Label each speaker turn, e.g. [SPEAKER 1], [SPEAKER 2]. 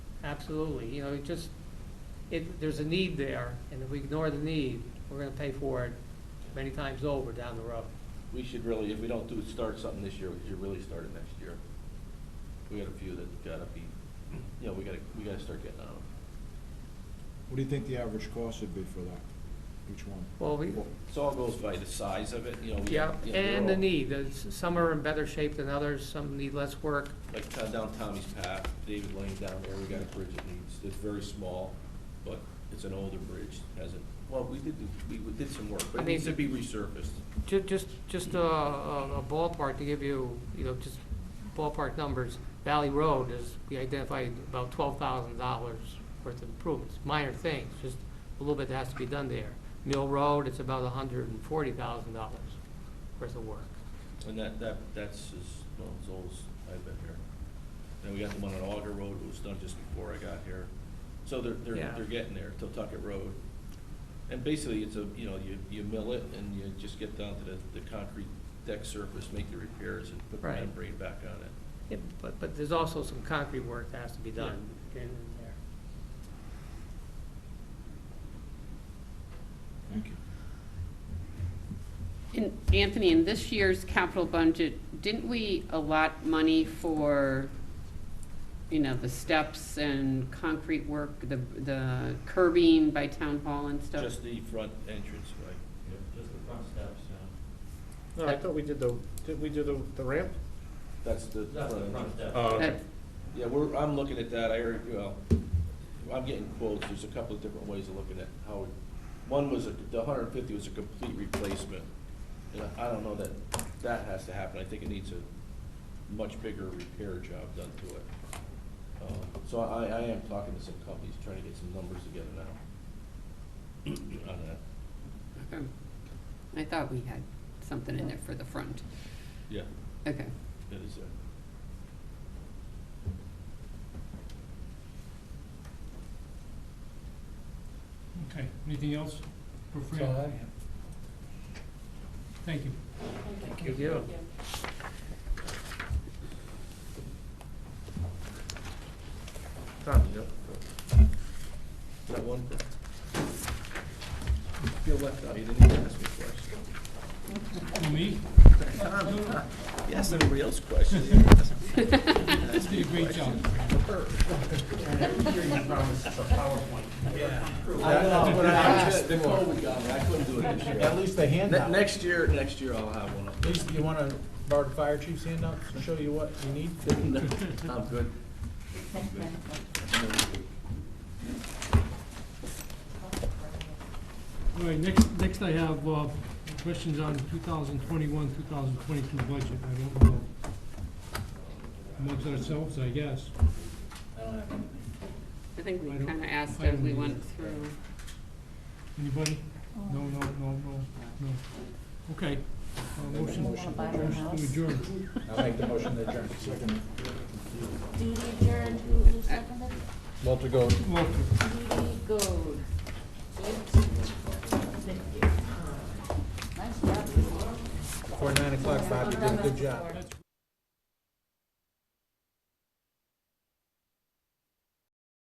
[SPEAKER 1] absolutely, you know, it just, it, there's a need there, and if we ignore the need, we're gonna pay for it many times over down the road.
[SPEAKER 2] We should really, if we don't do, start something this year, we should really start it next year. We got a few that gotta be, you know, we gotta, we gotta start getting um, on them.
[SPEAKER 3] What do you think the average cost would be for that, each one?
[SPEAKER 1] Well, we,
[SPEAKER 2] It all goes by the size of it, you know. we-
[SPEAKER 1] yeah,
[SPEAKER 2] you know, they're
[SPEAKER 1] and the
[SPEAKER 2] all-
[SPEAKER 1] need, Uh, s- some are in better shape than others, some need less work,
[SPEAKER 2] Like t- down Tommy's Path, David Lane down there, we got a bridge that needs, it's very small, but it's an older bridge, hasn't, well, we did, do- we did some work, but
[SPEAKER 1] I
[SPEAKER 2] it
[SPEAKER 1] mean-
[SPEAKER 2] needs to be resurfaced.
[SPEAKER 1] Ju- Just, just a a ballpark to give you, you know, just ballpark numbers, Valley Road is, we identified about twelve thousand dollars worth of improvements, minor things, just a little bit that has to be done there. Mill Road, it's about hundred and forty thousand dollars worth of work.
[SPEAKER 2] And that, that, that's as, well, as old as I've been here. Then we got the one on Auger Road, it was done just before I got here. So they're, they're,
[SPEAKER 1] Yeah.
[SPEAKER 2] they're getting there, Totucket Road. And basically, it's a, you know, you, you mill it and you just get down to the, the concrete deck surface, make the repairs and put the
[SPEAKER 1] Right.
[SPEAKER 2] membrane back on it.
[SPEAKER 1] Yeah, But, but there's also some concrete work that has to be done in there.
[SPEAKER 3] Thank you.
[SPEAKER 4] And Anthony, in this year's capital budget, didn't we allot money for, you know, the steps and concrete work, the, the curbing by town hall and stuff?
[SPEAKER 2] Just the front entrance, right?
[SPEAKER 5] Just the front steps, yeah.
[SPEAKER 6] No, I thought we did the, did we do the, the ramp?
[SPEAKER 2] That's the
[SPEAKER 5] That's the
[SPEAKER 2] front
[SPEAKER 5] front
[SPEAKER 2] entrance.
[SPEAKER 5] steps.
[SPEAKER 6] Oh, okay.
[SPEAKER 4] That-
[SPEAKER 2] Yeah, we're, I'm looking at that, I heard, well, I'm getting quotes, there's a couple of different ways of looking at how, one was, a- the hundred and fifty was a complete replacement. And I don't know that that has to happen, I think it needs a much bigger repair job done to it. Um, So I, I am talking to some companies, trying to get some numbers together now on that.
[SPEAKER 4] okay. I thought we had something in there for the front.
[SPEAKER 2] Yeah,
[SPEAKER 4] Okay.
[SPEAKER 2] that is it.
[SPEAKER 7] Okay, anything else? for Fran? Thank you.
[SPEAKER 1] Thank you.
[SPEAKER 2] Tom, you know? That one? Feel left out, you didn't even ask me a question.
[SPEAKER 7] For me,
[SPEAKER 2] You asked everybody else questions. You didn't ask me
[SPEAKER 7] you did a great job.
[SPEAKER 2] her.
[SPEAKER 3] That's what I asked
[SPEAKER 2] The call we got, but I couldn't do it this year.
[SPEAKER 3] At least the
[SPEAKER 2] Ne-
[SPEAKER 3] handout.
[SPEAKER 2] Next year, next year I'll have one up.
[SPEAKER 3] At least you want to borrow the fire chief's handout to show you what you need?
[SPEAKER 2] No, I'm good.
[SPEAKER 7] All right, next, next I have uh, questions on 2021, 2022 budget. I don't know. Amongst ourselves, I guess.
[SPEAKER 4] I think we
[SPEAKER 7] I don't-
[SPEAKER 4] kind of asked
[SPEAKER 7] I don't
[SPEAKER 4] as we
[SPEAKER 7] need
[SPEAKER 4] went
[SPEAKER 7] it.
[SPEAKER 4] through.
[SPEAKER 7] Anybody? No, no, no, no, no. Okay. uh, Motion
[SPEAKER 3] Motion to
[SPEAKER 7] motion to adjourn.
[SPEAKER 3] I'll make the motion to adjourn. Second.
[SPEAKER 8] Dee Dee Jordan, who who seconded?
[SPEAKER 3] Walter Gold.
[SPEAKER 7] Walter.
[SPEAKER 8] Dee Dee Gold. Nice job.
[SPEAKER 3] Before nine o'clock, Bob, you did a good job.